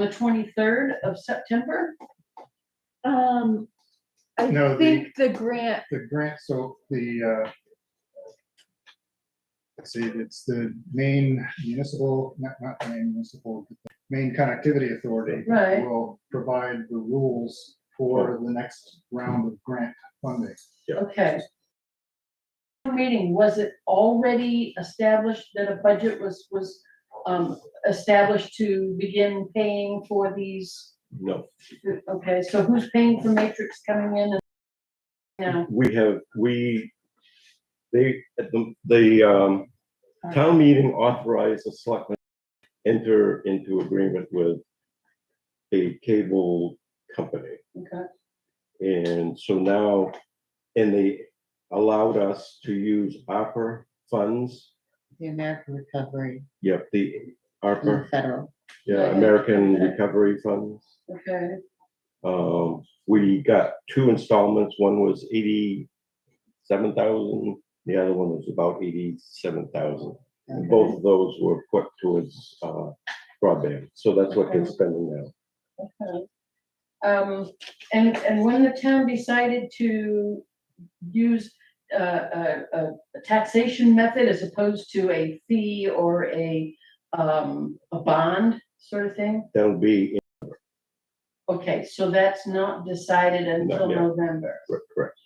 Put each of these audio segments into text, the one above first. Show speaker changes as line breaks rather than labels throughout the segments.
the twenty-third of September?
Um,
No,
I
the-
think the grant,
the grant, so the, uh, let's see, it's the main municipal, not, not main municipal, but the main connectivity authority.
Right.
Will provide the rules for the next round of grant funding.
Okay. Meeting, was it already established that a budget was, was, um, established to begin paying for these?
No,
Okay, so who's paying for Matrix coming in and? Now,
we have, we, they, at the, the, um, town meeting authorized the selectmen enter into agreement with a cable company.
okay,
And so now, and they allowed us to use ARPA funds.
The American Recovery,
Yep, the
the
ARPA,
federal,
yeah, American Recovery Funds.
okay,
Um, we got two installments. One was eighty-seven thousand, the other one was about eighty-seven thousand. And both of those were put towards, uh, broadband. So that's what they're spending now.
okay. Um, and, and when the town decided to use, uh, a, a a taxation method as opposed to a fee or a, um, a bond sort of thing?
That'll be, in-
Okay, so that's not decided until
yet.
November.
correct.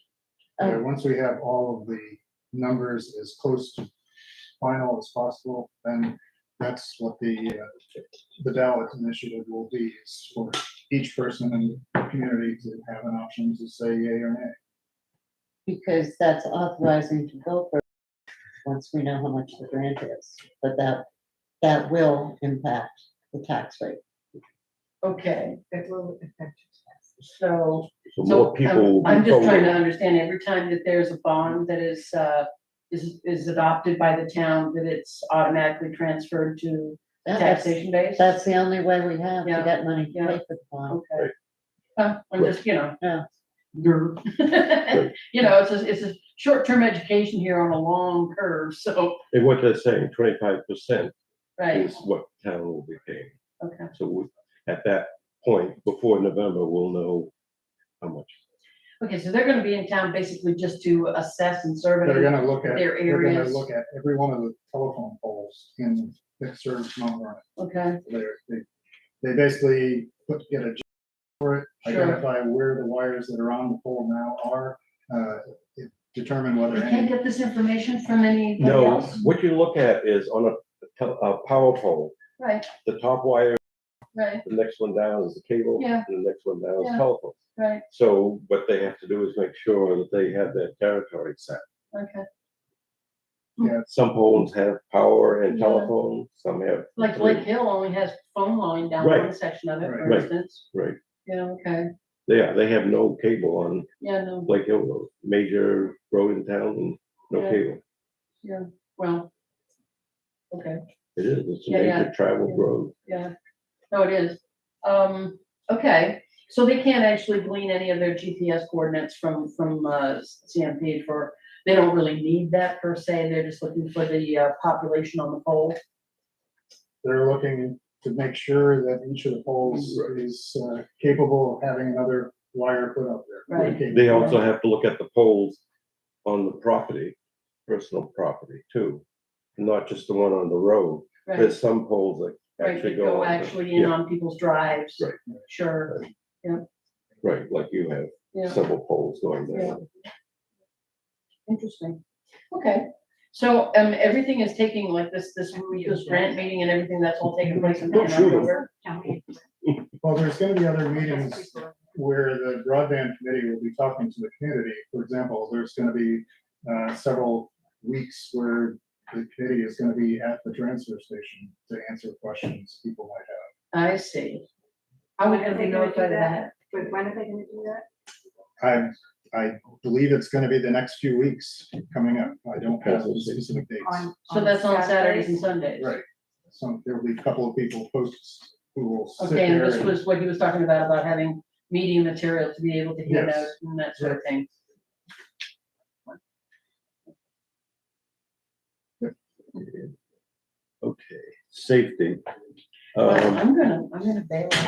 Yeah, once we have all of the numbers as close to final as possible, then that's what the, uh, the ballot initiative will be, is for each person in the community to have an option to say yay or nay.
because that's authorizing to go for, once we know how much the grant is, but that, that will impact the tax rate.
Okay. So,
So
so um,
more people.
I'm, I'm just
will-
trying to understand, every time that there's a bond that is, uh, is, is adopted by the town, that it's automatically transferred to
That- That's
taxation base?
that's the only way we have to
Yeah,
get money to
yeah.
pay for the bond.
Okay. Huh, I'm just, you know.
Yeah.
grr. You know, it's a, it's a short-term education here on a long curve, so,
And what they're saying, twenty-five percent
right,
is what town will be paying.
okay.
So we- at that point, before November, we'll know how much.
Okay, so they're gonna be in town basically just to assess and survey.
They're gonna look at,
Their
they're gonna
areas.
look at every one of the telephone poles in the service number.
Okay,
They're, they, they basically put together a for it,
Sure.
identify where the wires that are on the pole now are, uh, determine
you
whether
can't
any,
get this information from anybody
No,
else?
what you look at is on a, tel- a power pole,
Right,
the top wire,
right,
the next one down is the cable,
Yeah.
and the next one down
Yeah.
is telephone.
right,
So what they have to do is make sure that they have their territory set.
okay.
Some poles have power and
Yeah.
telephone, some have.
Like Lake Hill only has phone line down
Right.
one section of it, for
Right.
instance.
Right.
Yeah, okay,
Yeah, they have no cable on
yeah, no,
Lake Hill Road, major road in town, no
Yeah.
cable.
well, okay,
It is, it's a
Yeah, yeah.
major travel road.
yeah, no, it is. Um, okay, so they can't actually glean any of their GPS coordinates from, from, uh, CMP for, they don't really need that per se, they're just looking for the, uh, population on the pole.
they're looking to make sure that each of the poles is uh, capable of having another wire put up there.
Right.
They also have to look at the poles on the property, personal property too, not just the one on the road.
Right.
There's some poles that
Right,
actually
that
go
go
on. the-
actually in
yeah,
on people's drives.
Right.
Sure,
Right, like you have
yeah,
several poles going
Yeah.
there.
interesting. Okay, so, um, everything is taking like this, this, this grant meeting and everything, that's all taking place in
Don't shoot 'em.
October?
Well, there's gonna be other meetings where the broadband committee will be talking to the community. For example, there's gonna be uh, several weeks where the committee is gonna be at the transfer station to answer questions people might have.
I see. How are we gonna be
Are they gonna do
notified of that?
But when are they gonna do that?
I, I believe it's gonna be the next few weeks coming up. I don't have the specific dates.
On-
So that's on Saturdays and Sundays?
Right. So there will be a couple of people posts who will sit
Okay, and
there.
this
and-
was what he was talking about, about having meeting material to be able to hand
Yes.
out and that sort of thing.
Okay, safety.
Well,
Um,
Um,
Um,
I'm gonna, I'm gonna bail.